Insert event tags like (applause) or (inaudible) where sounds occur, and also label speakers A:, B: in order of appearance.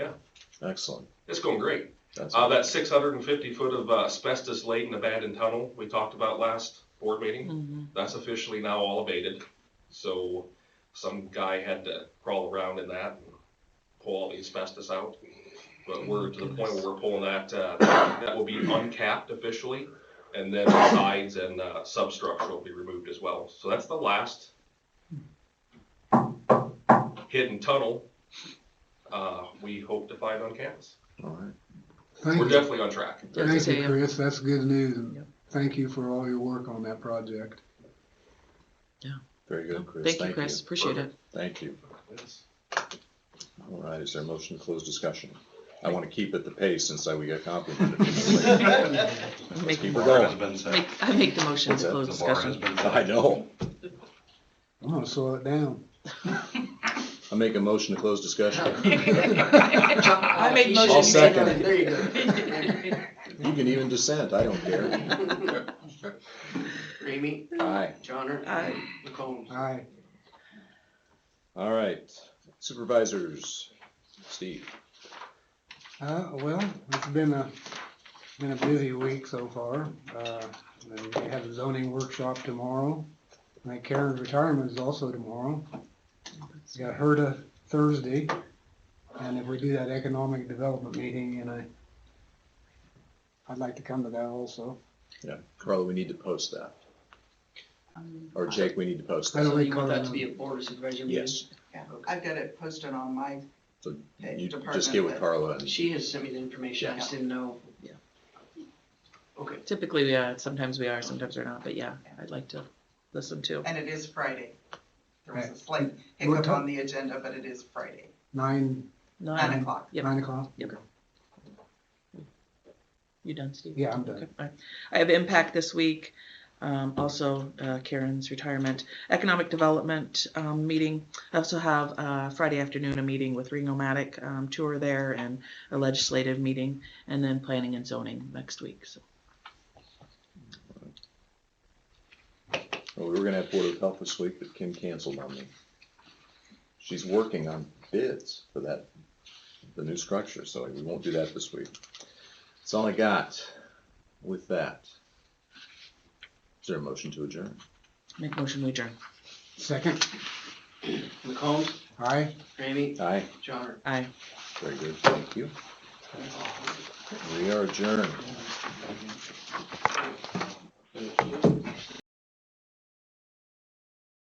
A: Excellent.
B: It's going great.
A: That's
B: Uh, that six hundred and fifty foot of uh, asbestos laden abandoned tunnel we talked about last board meeting,
C: Mm-hmm.
B: that's officially now elevated. So some guy had to crawl around in that and pull all the asbestos out. But we're to the point where we're pulling that, uh, that will be uncapped officially. And then the sides and, uh, substructure will be removed as well. So that's the last hidden tunnel, uh, we hope to find on campus.
A: all right.
B: We're
D: Thank you,
B: definitely on track.
D: thank you,
C: Sam.
D: Chris, that's good news, and
C: Yep.
D: thank you for all your work on that project. (laughs)
A: Very good, Chris.
C: Thank you, Chris. Appreciate it.
A: Thank you. All right, is there a motion to close discussion? I want to keep at the pace since I, we got complimented. (laughs)
C: Make,
A: Keep her
C: make,
E: The bar has
A: going.
E: been set.
C: I make the motion
A: What's
C: to
A: that?
C: close
E: The bar has
C: discussion.
E: been
A: I
E: set.
A: know.
D: I'm gonna slow it down.
A: I make a motion to close
C: (laughs)
A: discussion.
C: I made
A: I'll
C: motion.
A: second it.
F: There you go.
C: (laughs)
A: You can even dissent, I don't care.
F: Ramey,
A: Aye.
F: Johnner.
C: Aye.
F: McCombs.
D: Aye,
A: All right, supervisors, Steve.
D: uh, well, it's been a, been a busy week so far, uh, and we have a zoning workshop tomorrow. I think Karen's retirement is also tomorrow, we got HERDA Thursday, and if we do that economic development meeting, and I, I'd like to come to that also.
A: Yeah, Carla, we need to post that.
G: Um,
A: Or
G: Uh-huh.
A: Jake, we need to post
D: I
A: that.
D: don't
F: So you want that
D: recall.
F: to be a board of supervisor meeting?
A: Yes,
G: Yeah, I've got it posted on my,
A: so
G: Okay,
A: you just
G: department
A: get with
G: head.
A: Carla and
F: She has sent me the information, I just didn't know.
C: Yeah.
F: Okay,
C: Typically, yeah, sometimes we are, sometimes we're not, but yeah, I'd like to listen too.
G: and it is Friday. There was a
D: Right.
G: slight
D: What
G: hiccup
D: time?
G: on the agenda, but it is Friday,
D: Nine,
C: Nine,
G: nine o'clock.
C: Yep.
D: nine o'clock?
C: you done, Steve?
D: Yeah, I'm done.
C: Okay, fine. I have impact this week, um, also uh, Karen's retirement, economic development, um, meeting. I also have, uh, Friday afternoon, a meeting with Ring-O-Matic, um, tour there and a legislative meeting, and then planning and zoning next week, so.
A: Well, we were gonna have Board of Health this week, but Kim canceled on me. She's working on bids for that, the new structure, so we won't do that this week. That's all I got with that. Is there a motion to adjourn?
C: Make motion, we adjourn.
D: Second,
F: McCombs,
D: aye?
F: Ramey,
A: Aye,
F: Johnner.
C: Aye.
A: very good, thank you. We are adjourned.
F: Thank you.